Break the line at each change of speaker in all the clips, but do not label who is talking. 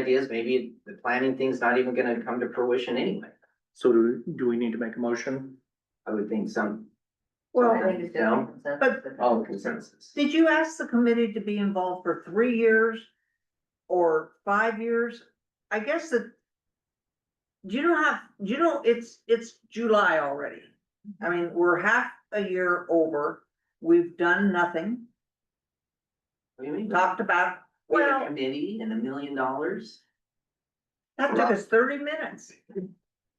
ideas, maybe the planning thing's not even gonna come to fruition anyway.
So do, do we need to make a motion?
I would think some,
Well,
No.
but-
Oh.
all consensus.
did you ask the committee to be involved for three years or five years? I guess that. Do you know how, do you know, it's, it's July already. I mean, we're half a year over. We've done nothing,
What do you mean?
talked about,
We had a
well-
Committee and a million dollars.
that took us thirty minutes.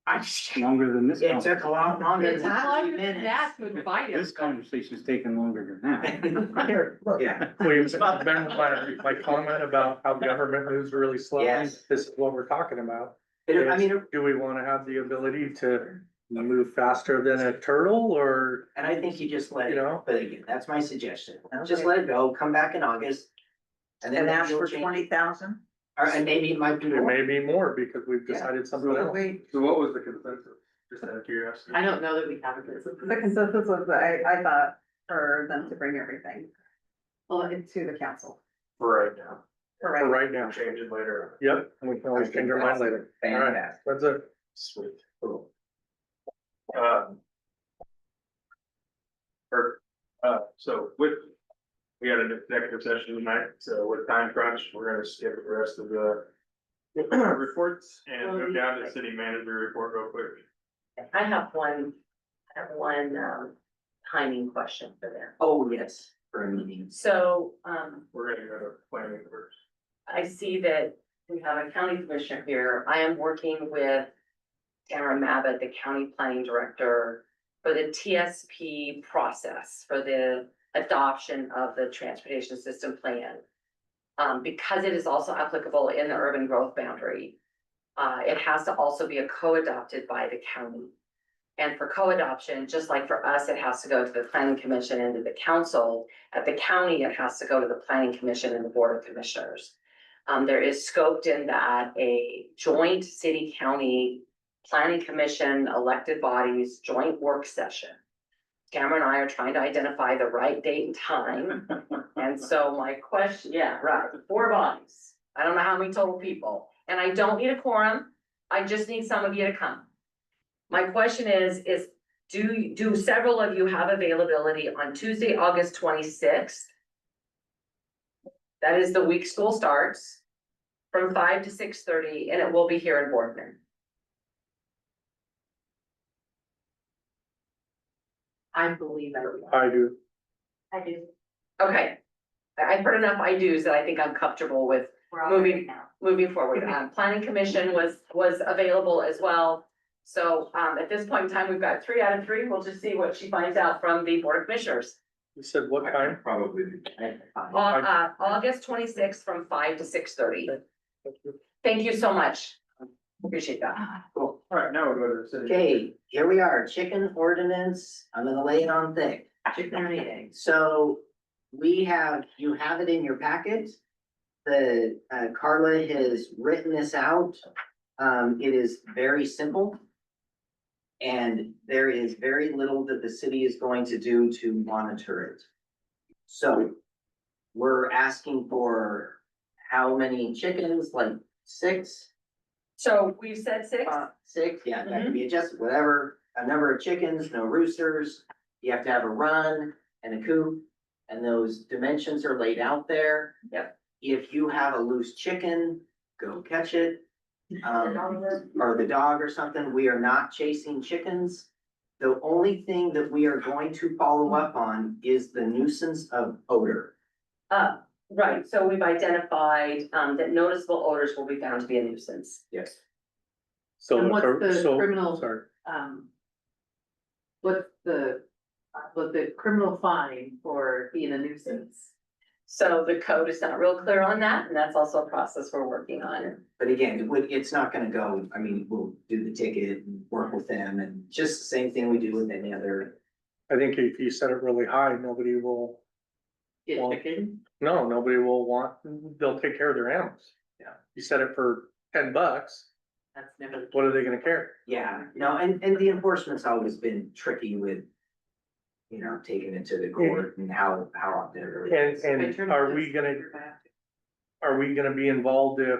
I just.
Longer than this.
It took a lot longer
It's
than three
longer than
minutes.
that to invite us.
This conversation's taken longer than
Here, look.
Yeah,
Please, Ben, my, my comment about how government moves really slow,
Yes.
this is what we're talking about.
It- I mean,
Do we wanna have the ability to move faster than a turtle or,
and I think you just let
you
it,
know?
but again, that's my suggestion, just
Okay.
let it go, come back in August. And then
And ask
you'll
for
change-
twenty thousand.
Or, and maybe it might be
It
more.
may be more because we've decided something else.
The
So what was the consensus? Just out of curiosity.
I don't know that we have a consensus.
consensus was, I, I thought for them to bring everything
Well, it-
into the council.
For right now. For
Correct.
right now.
Change it later.
Yep, and we can
I
always
think
change our mind
that's
later. All right,
Fantastic.
that's it.
Sweet.
Cool.
Um. Or, uh, so with, we had an executive session tonight, so with time crunch, we're gonna skip the rest of the. Reports and go down to city manager report real quick.
I have one, I have one, um, timing question for them.
Oh, yes, for a meeting.
So, um,
We're gonna go to planning first.
I see that we have a county commissioner here. I am working with Tamara Mabott, the county planning director, for the TSP process, for the adoption of the transportation system plan. Um, because it is also applicable in the urban growth boundary, uh, it has to also be a co-adopted by the county. And for co-adoption, just like for us, it has to go to the planning commission and to the council. At the county, it has to go to the planning commission and the board of commissioners. Um, there is scoped in that a joint city county planning commission elected bodies joint work session. Cameron and I are trying to identify the right date and time. And so my question, yeah, right, four bodies. I don't know how many total people, and I don't need a quorum. I just need some of you to come. My question is, is do, do several of you have availability on Tuesday, August twenty-sixth? That is the week school starts from five to six thirty and it will be here in Boardman.
I believe everyone.
I do.
I do.
Okay. I- I've heard enough I do's that I think I'm comfortable with
We're all right
Moving-
now.
moving forward. Um, planning commission was, was available as well. So, um, at this point in time, we've got three out of three. We'll just see what she finds out from the board of commissioners.
You said what time?
Probably.
Au- uh, August twenty-sixth from five to six thirty. Thank you so much. Appreciate that.
Cool. All right, now we'll go to the city.
Okay, here we are, chicken ordinance, I'm gonna lay it on thick.
Chicken and eggs.
So we have, you have it in your packet. The uh, Carla has written this out. Um, it is very simple. And there is very little that the city is going to do to monitor it. So we're asking for how many chickens, like six?
So we've said six. Mm-hmm.
Uh, Six, yeah, that can be adjusted, whatever, a number of chickens, no roosters, you have to have a run and a coop. And those dimensions are laid out there.
Yep.
If you have a loose chicken, go catch it. Um, or the dog or something, we are not chasing chickens. The only thing that we are going to
Mm-hmm.
follow up on is the nuisance of odor.
Uh, right, so we've identified, um, that noticeable odors will be found to be a nuisance.
Yes.
So,
And what's the
so-
criminal-
Sorry,
Um. What's the, uh, what the criminal fine for being a nuisance?
So the code is not real clear on that, and that's also a process we're working on.
But again, it would, it's not gonna go, I mean, we'll do the ticket and work with them and just the same thing we do with any other.
I think if you set it really high, nobody will,
Get
Well,
chicken?
no, nobody will want, they'll take care of their animals.
Yeah.
You set it for ten bucks,
That's never.
what are they gonna care?
Yeah, no, and, and the enforcement's always been tricky with, you know, taking it to the court and how, how out there. it
And,
is.
I
and
turned
are
this
we gonna
over back.
are we gonna be involved if